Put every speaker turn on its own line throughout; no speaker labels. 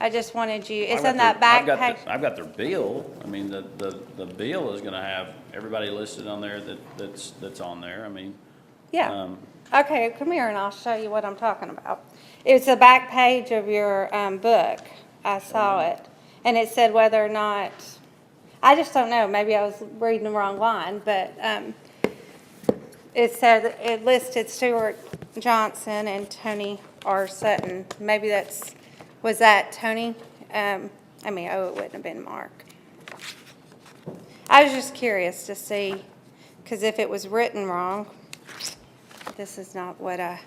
I just wanted you,
I've
it's
got
in that
their-
back
I've got
page.
the- I've got their bill. I mean, the, the, the bill is gonna have everybody listed on there that, that's, that's on there. I mean,
Yeah.
um,
Okay, come here and I'll show you what I'm talking about. It's the back page of your um, book. I saw it. And it said whether or not, I just don't know, maybe I was reading the wrong line, but um, it said, it listed Stuart Johnson and Tony R. Sutton. Maybe that's, was that Tony? Um, I mean, oh, it wouldn't have been Mark. I was just curious to see, because if it was written wrong, this is not what I,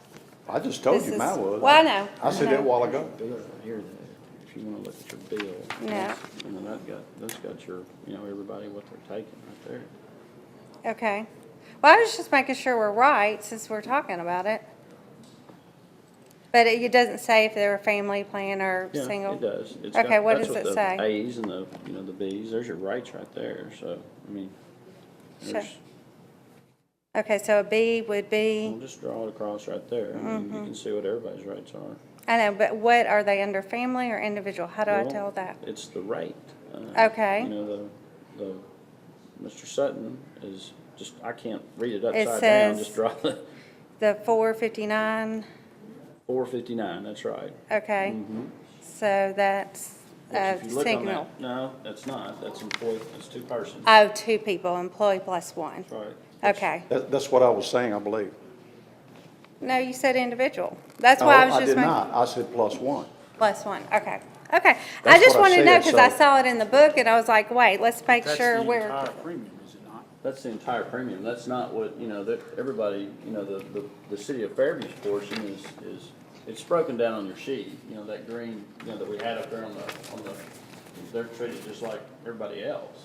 I just told
This
you mine
is-
was.
well, I know,
I said
I know.
that a while ago.
Here, if you wanna look at your bill.
Yeah.
And then that got, that's got your, you know, everybody what they're taking right there.
okay. Well, I was just making sure we're right since we're talking about it. But it it doesn't say if they're a family plan or
Yeah,
single.
It does. It's
Okay,
got-
what
that's
does it
the
say?
A's and the, you know, the B's, there's your rights right there, so, I mean,
Sure.
there's,
Okay, so a B would
we'll
be,
just draw it across right there. I mean,
Mm-hmm.
you can see what everybody's rights are.
I know, but what, are they under family or individual? How do I
Well,
tell that?
It's the rate. uh,
Okay.
You know, the, the, Mr. Sutton is just, I can't read it
It
upside down,
says-
just draw the
The four fifty-nine,
four fifty-nine, that's right.
okay. So that's
Mm-hmm. Which
a
if you look on
Uh, signal.
that, No, that's not, that's employee, that's two person,
Oh, two people, employee plus one.
that's right.
Okay.
That, that's what I was saying, I believe.
No, you said individual.
Oh,
That's why I
No,
was just
did
making.
not. I said plus one.
Plus one, okay, okay. I
That's
just
what
wanted
I
to know,
said,
because I
so-
saw it in the book, and I was like, wait, let's make sure we're,
That's the entire premium, is it not?
That's the entire premium, that's not what, you know, that, everybody, you know, the, the, the city of Fairview's portion is, is, it's broken down on your sheet, you know, that green, you know, that we had up there on the, on the, they're treated just like everybody else.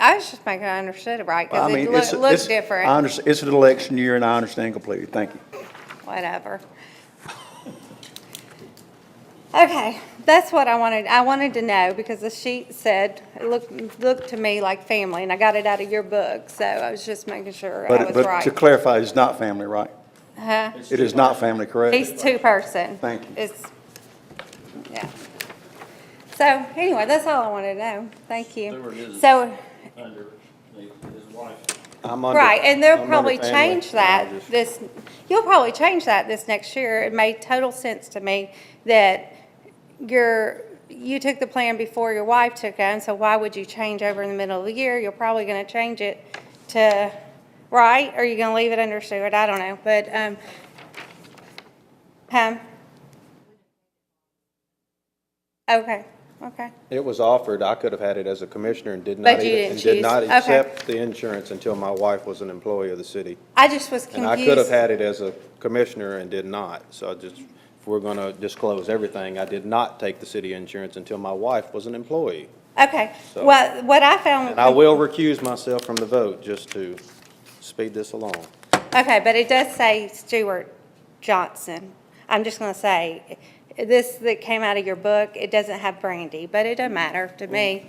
I was just making, I understood it right,
I
because
mean,
it
it's-
loo- looked
it's- I
different,
understand, it's an election year and I understand completely. Thank you.
whatever. Okay, that's what I wanted, I wanted to know, because the sheet said, it looked, looked to me like family, and I got it out of your book, so I was just making sure I
But,
was
but to
right. Uh-huh.
clarify, it's not family, right?
Huh?
It is not family, correct?
He's two-person.
Thank you.
It's, yeah. So, anyway, that's all I wanted to know, thank
Stuart
you.
is-
So,
under the- his wife.
I'm under-
Right, and
I'm
they'll
under
probably
family.
change
I
that
just-
this, you'll probably change that this next year. It made total sense to me that your, you took the plan before your wife took it, so why would you change over in the middle of the year? You're probably gonna change it to, right, or you're gonna leave it under Stewart, I don't know, but, um, um, okay, okay.
It was offered, I could have had it as a commissioner and did not.
But you
even-
didn't
and
choose.
Did not
Okay.
accept the insurance until my wife was an employee of the city.
I just was
And
confused.
I could have had it as a commissioner and did not. So I just, if we're going to disclose everything, I did not take the city insurance until my wife was an employee.
Okay,
So-
well, what I found.
And I will recuse myself from the vote just to speed this along.
Okay, but it does say Stuart Johnson. I'm just gonna say, this that came out of your book, it doesn't have Brandy, but it doesn't matter to
Mm,
me.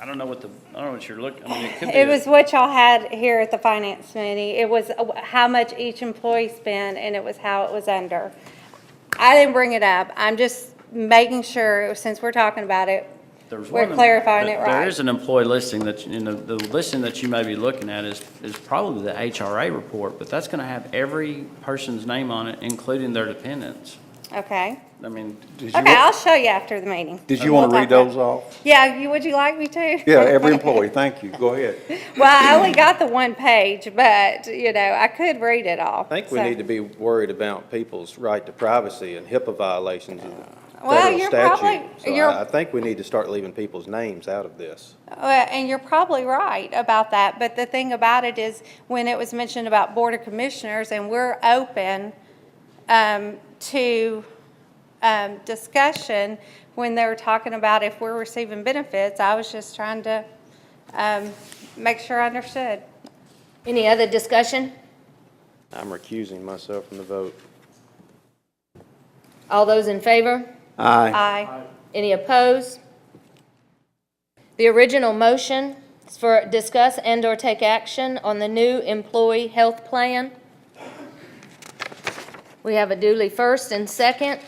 I don't know what the, I don't know what you're looking, I mean, it could be.
It
a-
was what y'all had here at the finance meeting. It was uh, how much each employee spent, and it was how it was under. I didn't bring it up. I'm just making sure, since we're talking about it,
there was
we're
one-
clarifying it
there- There is
right.
an employee listing that, you know, the listing that you may be looking at is, is probably the HRA report, but that's gonna have every person's name on it, including their dependents.
Okay?
I mean,
Did you
Okay,
wa-
I'll show you after the meeting.
Did you
We'll
want to read
talk about-
those off?
Yeah, you, would you like me to?
Yeah, every employee, thank you. Go ahead.
Well, I only got the one page, but, you know, I could read it all.
I think we need to be worried about people's right to privacy and HIPAA violations of the
Well,
federal
you're
statute.
probably-
So
you're-
I I think we need to start leaving people's names out of this.
Well, and you're probably right about that, but the thing about it is, when it was mentioned about Board of Commissioners, and we're open um, to um, discussion, when they were talking about if we're receiving benefits, I was just trying to um, make sure I understood.
Any other discussion?
I'm recusing myself from the vote.
All those in favor?
Aye.
Aye.
Any opposed? The original motion is for discuss and/or take action on the new employee health plan. We have a duly first and second.